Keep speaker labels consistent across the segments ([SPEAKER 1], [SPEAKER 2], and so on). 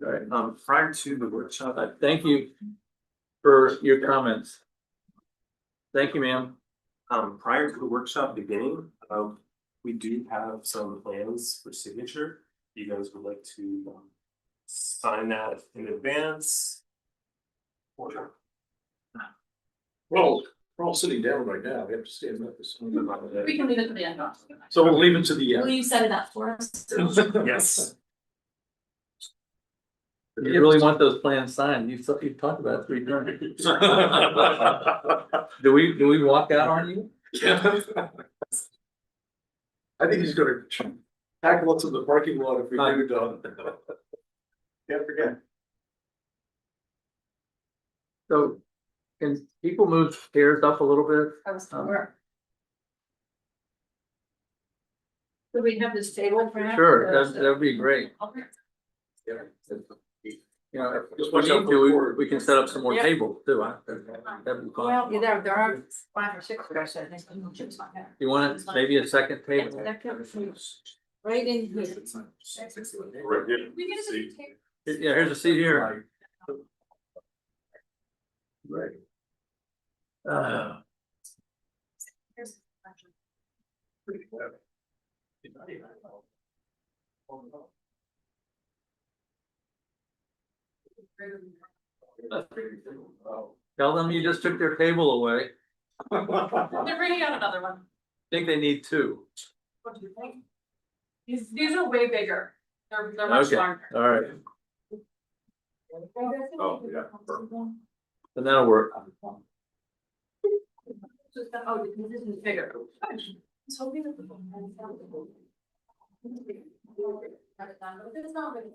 [SPEAKER 1] sorry, um, prior to the workshop,
[SPEAKER 2] uh,
[SPEAKER 1] I Uh, thank you for your comments. Thank you, ma'am.
[SPEAKER 2] Um, prior to the workshop beginning, um, we do have some plans for signature. You guys would like to um, sign that in advance? Or
[SPEAKER 3] We're all, we're all sitting down right now, we have to stand up. It's-
[SPEAKER 4] We can leave it to the end. not to the end.
[SPEAKER 3] So we'll leave it to the
[SPEAKER 4] Will
[SPEAKER 3] end.
[SPEAKER 4] you set it up for us?
[SPEAKER 2] Yes.
[SPEAKER 3] If
[SPEAKER 1] If you really want those plans signed, you've, you've talked about it three times. Do we, do we walk out on you?
[SPEAKER 3] I think he's gonna tackle us in the parking lot if we do, Don. Can't forget.
[SPEAKER 1] So can people move chairs up a little bit?
[SPEAKER 4] I was-
[SPEAKER 1] Um,
[SPEAKER 4] we're- Do we have this table for? now?
[SPEAKER 1] Sure, that, that'd be great.
[SPEAKER 4] Okay.
[SPEAKER 1] You know, if
[SPEAKER 3] Just
[SPEAKER 1] we
[SPEAKER 3] watch out
[SPEAKER 1] need
[SPEAKER 3] for the
[SPEAKER 1] to,
[SPEAKER 3] cord.
[SPEAKER 1] we, we can set up some more
[SPEAKER 4] Yeah.
[SPEAKER 1] tables too. I- That'd be fine.
[SPEAKER 4] Well, yeah, there, there are five or six that I said, I think Jim's not there.
[SPEAKER 1] You want it maybe a second
[SPEAKER 4] Yeah,
[SPEAKER 1] table?
[SPEAKER 4] that comes from Right in here.
[SPEAKER 2] Right here.
[SPEAKER 4] We get
[SPEAKER 2] See.
[SPEAKER 4] a table.
[SPEAKER 1] Yeah, here's a seat here.
[SPEAKER 3] Right.
[SPEAKER 1] Uh,
[SPEAKER 4] Here's-
[SPEAKER 1] Tell them you just took their table away.
[SPEAKER 4] They're bringing out another one.
[SPEAKER 1] Think they need two.
[SPEAKER 4] What do you think? These, these are way bigger. They're, they're much
[SPEAKER 1] Okay.
[SPEAKER 4] larger.
[SPEAKER 1] All right,
[SPEAKER 3] Oh, yeah.
[SPEAKER 1] then that'll work.
[SPEAKER 4] Just that- Oh, this is bigger. It's hoping that the- It's not really-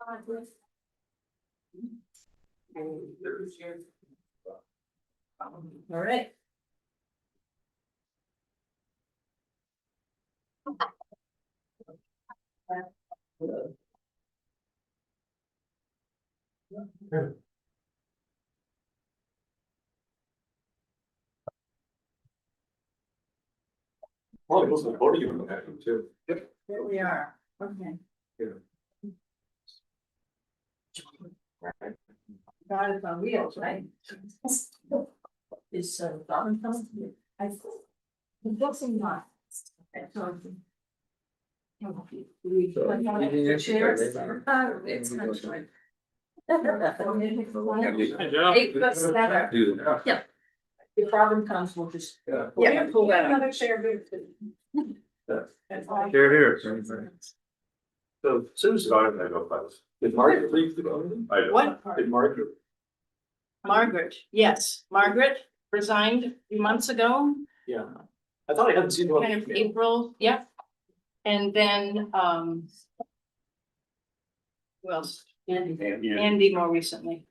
[SPEAKER 4] Uh, it's- All right.
[SPEAKER 3] Probably wasn't a podium in that one, too. Yep.
[SPEAKER 4] Here we are, okay.
[SPEAKER 3] Yeah.
[SPEAKER 4] God is on wheels, right? uh, Is so. I. I'm guessing not. Okay, so I'm- Okay, Oh, we-
[SPEAKER 1] So,
[SPEAKER 4] I'm gonna-
[SPEAKER 1] anything else to say,
[SPEAKER 4] chairs.
[SPEAKER 1] David?
[SPEAKER 4] Oh, it's kind of short. Eight plus seven.
[SPEAKER 1] Do that.
[SPEAKER 4] The problem comes, we'll just.
[SPEAKER 3] Yeah.
[SPEAKER 4] Yeah, pull that Another chair.
[SPEAKER 1] They're here. so-
[SPEAKER 3] So Susan. I go first. Did Margaret leave the building? I
[SPEAKER 5] What?
[SPEAKER 3] Did Margaret?
[SPEAKER 5] Margaret, yes, Margaret resigned a few months ago,
[SPEAKER 3] Yeah. I thought I hadn't seen one.
[SPEAKER 5] kind of April, yeah. And then, um. Who else? Andy, Andy more recently,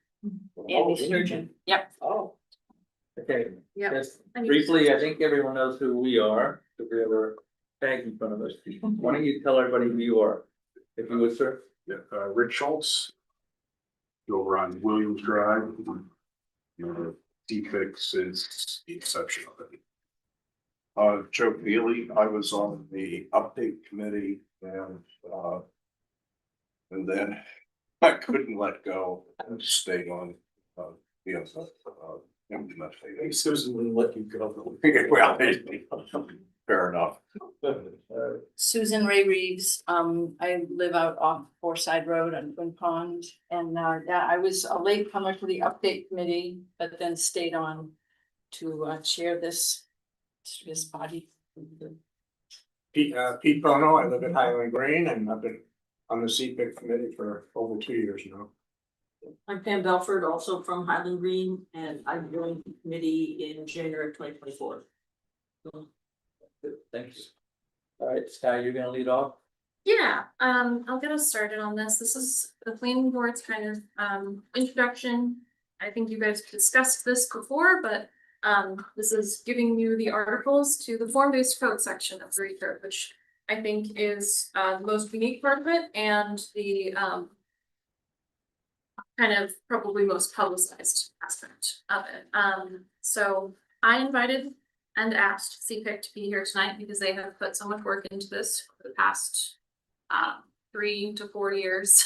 [SPEAKER 5] Andy Sturgeon, yep.
[SPEAKER 3] Oh.
[SPEAKER 1] Okay.
[SPEAKER 4] Yeah.
[SPEAKER 1] Yes,
[SPEAKER 4] And you-
[SPEAKER 1] briefly, I think everyone knows who we are, if we have our tag in front of us. Why don't you tell everybody who you are, if you would, sir?
[SPEAKER 6] Yeah, uh, Rick Schultz. Over on Williams Drive. You know, defect since the inception of it. Uh, Joe Neely, I was on the update committee and, uh. And then I couldn't let go and stayed on, uh, you know, uh,
[SPEAKER 3] Hey,
[SPEAKER 6] MDMA.
[SPEAKER 3] Susan wouldn't let you go.
[SPEAKER 6] Well, fair enough.
[SPEAKER 3] Uh,
[SPEAKER 5] Susan Ray Reeves, um, I live out off Forside Road on Twin Pond. And, uh, yeah, I was a late comer to the update committee, but then stayed on to, uh, chair this, this body.
[SPEAKER 6] Pete, uh, Pete Bono, I live at Highland Green and I've been on the CPIC committee for over two years now.
[SPEAKER 7] I'm Pam Belford, also from Highland Green, and I'm joining the committee in January of twenty twenty four.
[SPEAKER 1] Thank you. All right, Sky, you're gonna lead off?
[SPEAKER 8] Yeah, um, I'll get us started on this. This is the planning board's kind of um introduction. I think you guys discussed this before, but um, this is giving you the articles to the form-based code section of the code, which I think is uh the most unique part of it and the um kind of probably most publicized aspect of it. Um, so I invited and asked CPIC to be here tonight because they have put so much work into this for the past um, three to four years.